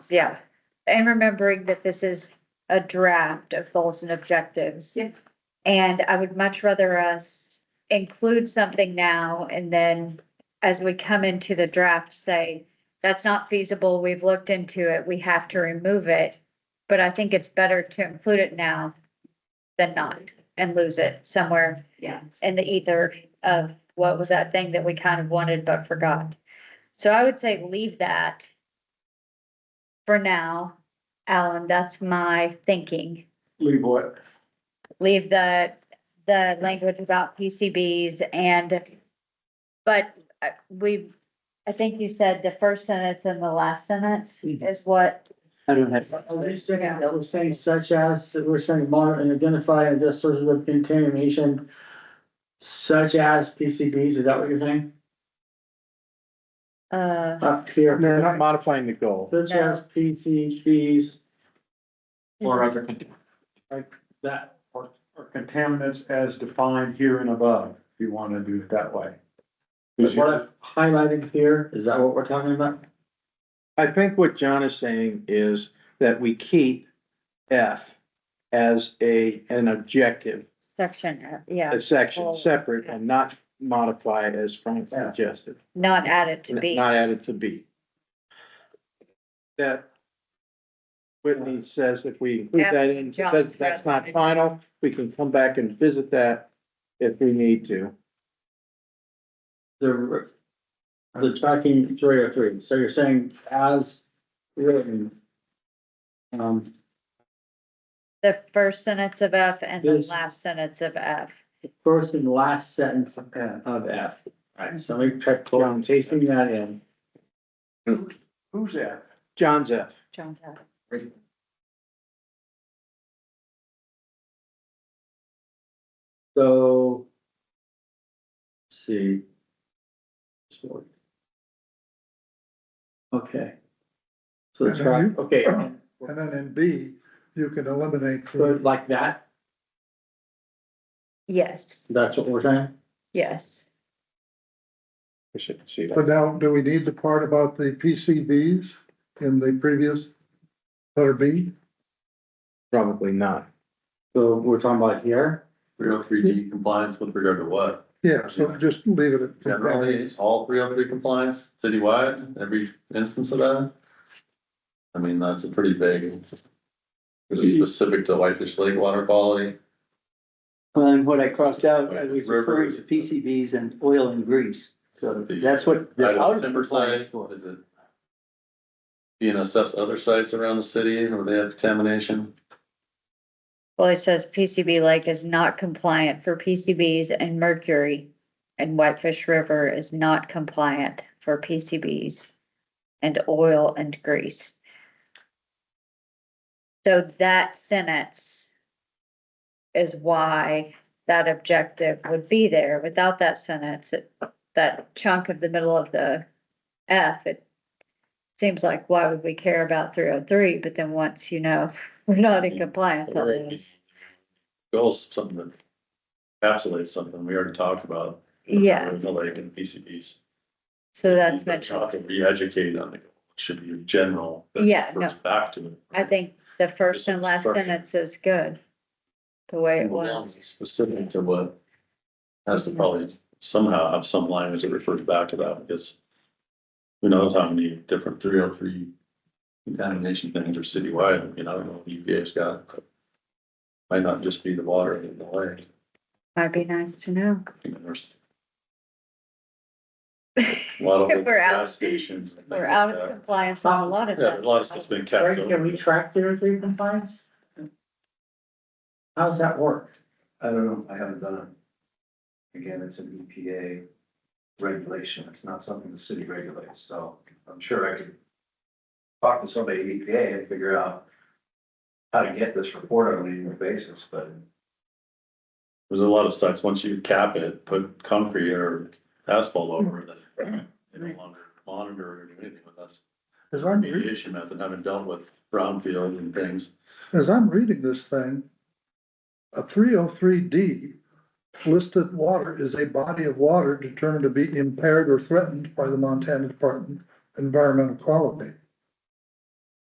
yeah. And remembering that this is a draft of goals and objectives. Yeah. And I would much rather us include something now and then as we come into the draft, say, that's not feasible, we've looked into it, we have to remove it. But I think it's better to include it now than not and lose it somewhere Yeah. in the ether of what was that thing that we kind of wanted but forgot. So I would say leave that for now. Alan, that's my thinking. Leave what? Leave the, the language about PCBs and, but uh, we, I think you said the first sentence and the last sentence Mhm. is what, I don't have, Are we saying, are we saying such as, we're saying monitor and identify and just sources of contamination such as PCBs, is that what you're saying? uh, Up here. No, not modifying the goal. Such as PCBs, uh, Or other, con- like that, or, or contaminants as defined here and above, if you wanna do it that way. is what I've highlighted here, is that what we're talking about? I think what John is saying is that we keep F as a, an objective, section, uh, yeah, a section separate and not modify as Frank suggested. not added to be. Not added to B. That Whitney says if we include that in, Yeah, that's, that's not John's right. final, we can come back and visit that if we need to. The, the tracking three oh three, so you're saying as written. Um, The first sentence of F and the This- last sentence of F. first and last sentence of F, right, so we check, I'm tasting that in. Who's that? John's F. John's F. So. let's See. Okay. So the track, okay, And then in B, you can eliminate so the like that, Yes, that's what we're saying? yes. We should see that. But now, do we need the part about the PCBs in the previous letter B? Probably not. So we're talking about here, three oh three D compliance with regard to what? Yeah, so just leave it at. Generally, it's all three oh three compliance citywide, every instance of that. I mean, that's a pretty big. It is specific to Whitefish Lake water quality. and what I crossed out, I was referring to PCBs and oil and grease. So that's what the Item outer timber compliance site, for. what is it? E You know, stuff's other sites around the city where they have contamination. Well, it says PCB Lake is not compliant for PCBs and mercury. And Whitefish River is not compliant for PCBs and oil and grease. So that sentence is why that objective would be there. Without that sentence, it- that chunk of the middle of the F, it seems like, why would we care about three oh three? But then once you know, we're not in compliance, that means. Goals, something that encapsulates something we already talked about. Yeah, The lake and PCBs. so that's But you mentioned. have to Re-educate on the, goal. It should be general. that Yeah, no. refers Back to it. I think the first and last Structure. sentence is good. The way it Well, was. it's Specific to what has to probably somehow have some language that refers back to that because who knows how many different three oh three contamination things are citywide. I mean, I don't know if UVA's got. but Might not just be the water in the lake. Might be nice to know. I mean, There's a lot of old We're out. gas stations. and We're things out like of that. compliance on a lot of Yeah, a that. lot of stuff's been Right, kept. can we track theory three compliance? How does that work? I don't know, I haven't done it. Again, it's an EPA regulation, it's not something the city regulates, so I'm sure I could talk to somebody at EPA and figure out how to get this report on an annual basis, but There's a lot of sites, once you cap it, put concrete or asphalt over it, then they no longer monitor or do anything with us. As I'm, re- Remediation method, having dealt with brownfield and things. as I'm reading this thing, a three oh three D listed water is a body of water determined to be impaired or threatened by the Montana Department of Environmental Quality.